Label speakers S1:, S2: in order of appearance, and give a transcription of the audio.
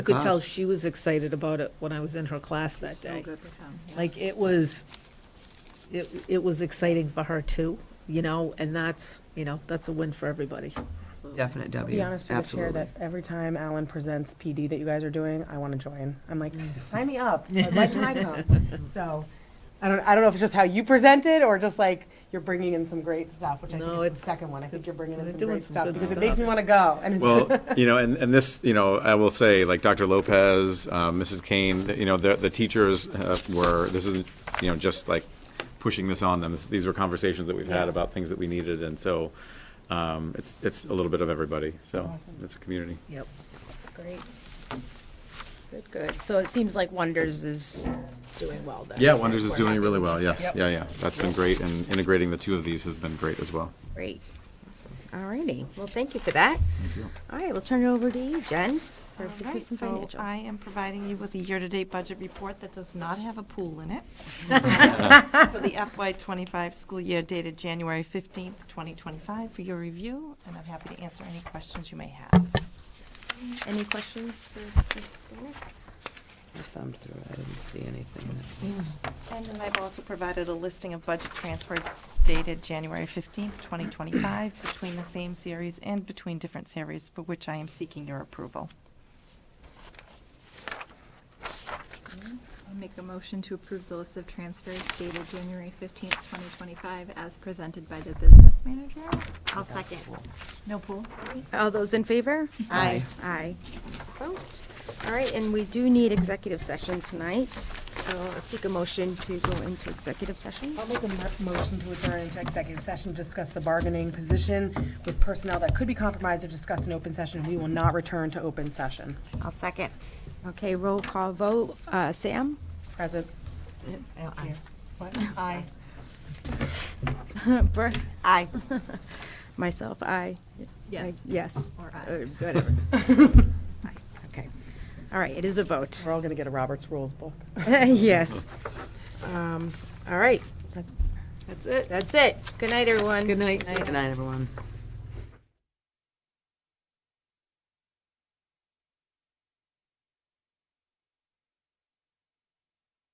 S1: I could tell
S2: cost.
S1: she was excited about it when I was in her class that
S3: So
S4: Oh,
S1: day.
S3: good with him.
S1: Like, it was, it, it was exciting for her too, you know, and that's, you know, that's a win for everybody.
S2: Definite W,
S5: Be honest with the chair
S2: absolutely.
S5: that every time Alan presents PD that you guys are doing, I want to join. I'm like,
S1: Mm.
S5: sign me up. I'd like to come. So, I don't, I don't know if it's just how you present it or just like you're bringing in some great stuff, which I
S1: No,
S5: think is
S1: it's-
S5: the second one. I think
S1: it's-
S5: you're bringing
S1: they're
S5: in some
S1: doing
S5: great
S1: some
S5: stuff
S1: good
S5: because it
S1: stuff.
S5: makes me want to go. And it's,
S6: Well, you know, and, and this, you know, I will say, like Dr. Lopez, um, Mrs. Kane, th- you know, the, the teachers uh, were, this isn't, you know, just like pushing this on them. This- These were conversations that we've had about things that we needed, and so um, it's, it's a little bit of everybody, so it's a community.
S1: Yep.
S4: Great. Good, good. So it seems like Wonders is doing well then.
S6: Yeah, Wonders is doing really well, yes, yeah, yeah. That's been great, and integrating the two of these has been great as well.
S4: Great. All righty. Well, thank you for that. All right, we'll turn it over to you, Jen, for
S3: All right,
S4: business and
S3: so
S4: financial.
S3: I am providing you with a year-to-date budget report that does not have a pool in it for the FY twenty-five school year dated January fifteenth, twenty twenty-five for your review, and I'm happy to answer any questions you may have.
S4: Any questions for Mrs. Skinner?
S2: I thumbed through it, I didn't see anything.
S3: And then I've also provided a listing of budget transfers dated January fifteenth, twenty twenty-five between the same series and between different series for which I am seeking your approval.
S7: I make a motion to approve the list of transfers dated January fifteenth, twenty twenty-five, as presented by the business manager.
S4: I'll second.
S7: No pool?
S4: All those in favor? Aye. Aye. Vote. All right, and we do need executive session tonight, so I'll seek a motion to go into executive session.
S5: I'll make a mo- motion to adjourn into executive session, discuss the bargaining position with personnel that could be compromised if discussed in open session. We will not return to open session.
S4: I'll second. Okay, roll call vote. Uh, Sam?
S5: Present. What? Aye.
S4: Brooke? Aye. Myself, aye. I-
S7: Yes.
S4: Yes.
S7: Or aye.
S4: Uh, Whatever. Aye, Okay. All right, it is a vote.
S5: We're all going to get a Roberts Rules book.
S4: Yes. Um, All right. That's it. That's it. Good night, everyone.
S2: Good night, everyone.